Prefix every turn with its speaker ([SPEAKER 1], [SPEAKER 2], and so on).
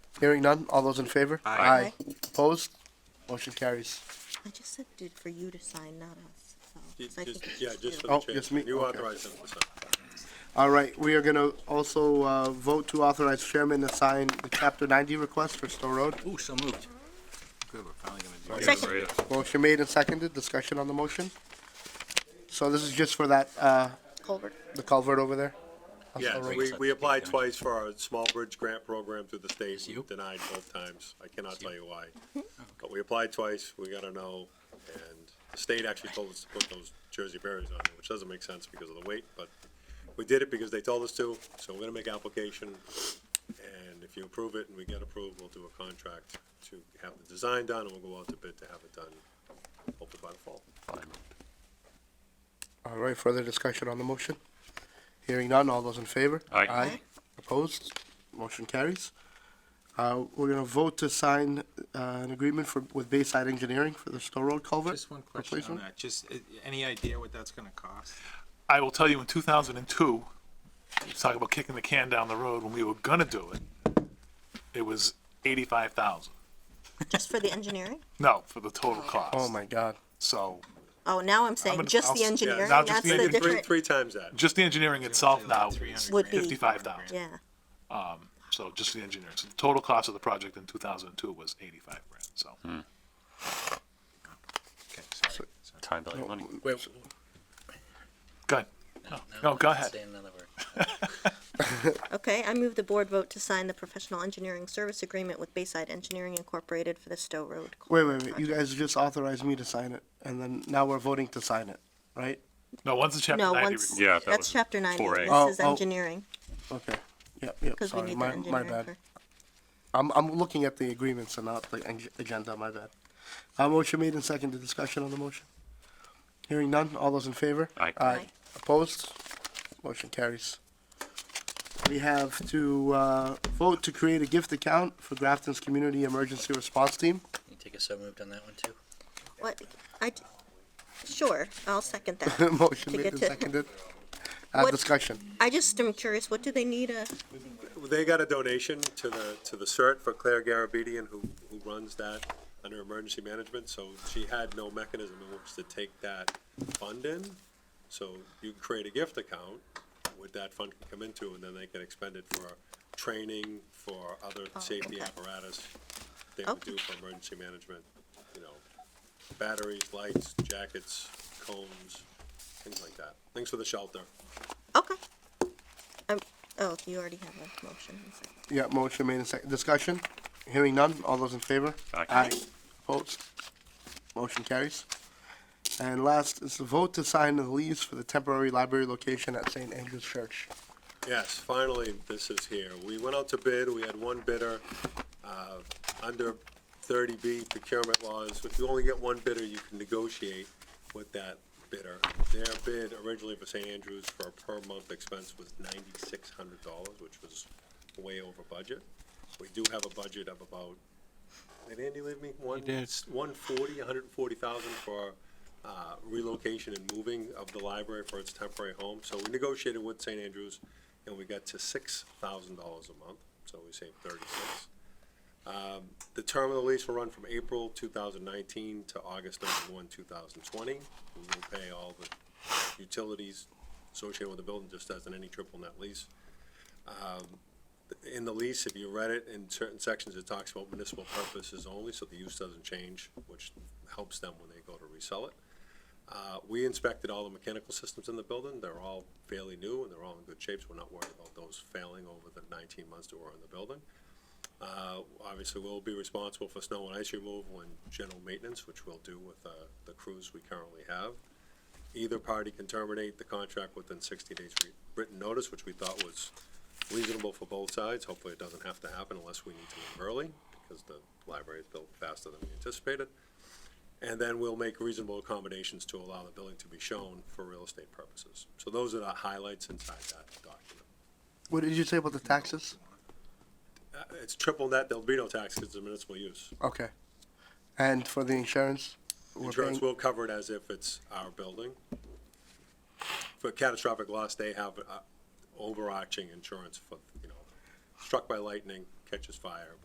[SPEAKER 1] Hearing none, all those in favor?
[SPEAKER 2] Aye.
[SPEAKER 1] Opposed? Motion carries.
[SPEAKER 3] I just said did for you to sign, not us, so. 'cause I think
[SPEAKER 4] Just,
[SPEAKER 3] it's
[SPEAKER 4] yeah, just
[SPEAKER 3] you.
[SPEAKER 4] for
[SPEAKER 1] Oh,
[SPEAKER 4] the change.
[SPEAKER 1] just me?
[SPEAKER 4] You
[SPEAKER 1] Okay.
[SPEAKER 4] authorize them, so.
[SPEAKER 1] All right, we are gonna also, uh, vote to authorize chairman to sign the chapter ninety request for Stowe Road.
[SPEAKER 5] Ooh, so moved. Good, we're finally gonna do it.
[SPEAKER 3] Second.
[SPEAKER 1] Motion made and seconded, discussion on the motion. So this is just for that, uh,
[SPEAKER 3] Colbert.
[SPEAKER 1] the culvert over there? on
[SPEAKER 4] Yeah,
[SPEAKER 1] Stowe Road?
[SPEAKER 4] we, we applied
[SPEAKER 5] Yeah.
[SPEAKER 4] twice for our small bridge grant program through the state,
[SPEAKER 5] you.
[SPEAKER 4] denied both times. I cannot tell you why. But we applied twice, we got a no, and the state actually told us to put those Jersey barriers on, it, which doesn't make sense because of the weight, but we did it because they told us to, so we're gonna make application. And if you approve it and we get approved, we'll do a contract to have the design done, and we'll go out to bid to have it done, hopefully by the fall.
[SPEAKER 1] All right, further discussion on the motion? Hearing none, all those in favor?
[SPEAKER 2] Aye.
[SPEAKER 1] Opposed? Motion carries. Uh, we're gonna vote to sign, uh, an agreement for, with Bayside Engineering for the Stowe Road culvert.
[SPEAKER 5] Just one question on
[SPEAKER 1] replacement.
[SPEAKER 5] that, just, uh, any idea what that's gonna cost?
[SPEAKER 2] I will tell you in 2002, you talk about kicking the can down the road when we were gonna do it. It was 85,000.
[SPEAKER 3] Just for the engineering?
[SPEAKER 2] No, for the total cost.
[SPEAKER 1] Oh my god.
[SPEAKER 2] So
[SPEAKER 3] Oh, now I'm saying
[SPEAKER 2] gonna-
[SPEAKER 3] just
[SPEAKER 2] I'll-
[SPEAKER 3] the
[SPEAKER 2] yeah,
[SPEAKER 3] engineering,
[SPEAKER 2] now
[SPEAKER 3] that's
[SPEAKER 2] just the
[SPEAKER 3] the
[SPEAKER 2] engineering.
[SPEAKER 4] Three,
[SPEAKER 3] different,
[SPEAKER 4] three times that.
[SPEAKER 2] just the engineering itself now
[SPEAKER 5] Like
[SPEAKER 2] is
[SPEAKER 5] 300
[SPEAKER 3] Would be-
[SPEAKER 5] grand.
[SPEAKER 2] 55,000.
[SPEAKER 3] yeah.
[SPEAKER 2] So just the engineering. So the total cost of the project in 2002 was 85 grand. So
[SPEAKER 3] Hmm.
[SPEAKER 5] Okay, sorry, sorry.
[SPEAKER 6] Time
[SPEAKER 1] Oh.
[SPEAKER 6] value of money.
[SPEAKER 2] go ahead. No, go ahead.
[SPEAKER 7] Say another word.
[SPEAKER 3] Okay, I move the board vote to sign the professional engineering service agreement with Bayside Engineering Incorporated for the Stowe Road.
[SPEAKER 1] Wait, wait,
[SPEAKER 3] culvert
[SPEAKER 1] wait, you
[SPEAKER 3] project.
[SPEAKER 1] guys just authorized me to sign it, and then now we're voting to sign it, right?
[SPEAKER 2] No, once the chapter
[SPEAKER 3] No,
[SPEAKER 2] 90
[SPEAKER 3] once,
[SPEAKER 2] report.
[SPEAKER 6] Yeah, that
[SPEAKER 3] that's
[SPEAKER 6] was
[SPEAKER 3] chapter ninety,
[SPEAKER 6] 4A.
[SPEAKER 1] Oh,
[SPEAKER 3] this is
[SPEAKER 1] oh.
[SPEAKER 3] engineering,
[SPEAKER 1] Okay, yep, yep,
[SPEAKER 3] cause we
[SPEAKER 1] sorry,
[SPEAKER 3] need the
[SPEAKER 1] my, my
[SPEAKER 3] engineering
[SPEAKER 1] bad.
[SPEAKER 3] for.
[SPEAKER 1] I'm, I'm looking at the agreements and not the eng- agenda, my bad. Uh, motion made and seconded, discussion on the motion. Hearing none, all those in favor?
[SPEAKER 6] Aye.
[SPEAKER 1] Aye.
[SPEAKER 3] Aye.
[SPEAKER 1] Opposed? Motion carries. We have to, uh, vote to create a gift account for Grafton's Community Emergency Response Team.
[SPEAKER 7] You take a so moved on that one too?
[SPEAKER 3] What, I, d- sure, I'll second that.
[SPEAKER 1] Motion
[SPEAKER 3] To
[SPEAKER 1] made
[SPEAKER 3] get
[SPEAKER 1] and
[SPEAKER 3] to-
[SPEAKER 1] seconded. Uh,
[SPEAKER 3] What-
[SPEAKER 1] discussion.
[SPEAKER 3] I just am curious, what do they need a,
[SPEAKER 4] They got a donation to the, to the CERT for Claire Garabedian, who, who runs that under emergency management, so she had no mechanism in which to take that fund in. So you can create a gift account with that fund can come into, and then they can expend it for training, for other
[SPEAKER 3] Oh,
[SPEAKER 4] safety
[SPEAKER 3] okay. Oh.
[SPEAKER 4] apparatus they would
[SPEAKER 3] Okay.
[SPEAKER 4] do for emergency management, you know, batteries, lights, jackets, combs, things like that, things for the shelter.
[SPEAKER 3] okay. Um, oh, you already have a motion, and second.
[SPEAKER 1] Yeah, motion made and second. Discussion? Hearing none. All those in favor?
[SPEAKER 6] Aye.
[SPEAKER 1] Opposed? Motion carries. And last is the vote to sign the lease for the temporary library location at St. Andrew's Church.
[SPEAKER 4] Yes, finally, this is here. We went out to bid, we had one bidder, uh, under thirty B procurement laws. If you only get one bidder, you can negotiate with that bidder. Their bid originally for St. Andrews for a per month expense was ninety-six hundred dollars, which was way over budget. We do have a budget of about, did Andy leave me? One,
[SPEAKER 5] did.
[SPEAKER 4] one forty, hundred and forty thousand for, uh, relocation and moving of the library for its temporary home. So we negotiated with St. Andrews and we got to six thousand dollars a month, so we saved thirty-six. Um, the term of the lease will run from April two thousand nineteen to August thirty-one, two thousand twenty. We will pay all the utilities associated with the building, just as in any triple net lease. Um, In the lease, if you read it, in certain sections, it talks about municipal purposes only, so the use doesn't change, which helps them when they go to resell it. Uh, we inspected all the mechanical systems in the building. They're all fairly new and they're all in good shape, so we're not worried about those failing over the nineteen months that we're in the building. Uh, obviously, we'll be responsible for snow and ice removal and general maintenance, which we'll do with, uh, the crews we currently have. Either party can terminate the contract within sixty days re- written notice, which we thought was reasonable for both sides. Hopefully, it doesn't have to happen unless we need to leave early, because the library is built faster than we anticipated. And then we'll make reasonable accommodations to allow the building to be shown for real estate purposes. So those are the highlights inside that document.
[SPEAKER 1] What did you say about the taxes?
[SPEAKER 4] Uh, It's triple net, there'll be no tax because it's municipal use.
[SPEAKER 1] Okay. And for the insurance? we're
[SPEAKER 4] Insurance
[SPEAKER 1] paying-
[SPEAKER 4] will cover it as if it's our building. For catastrophic loss, they have uh, overarching insurance for, you know, struck by lightning, catches fire,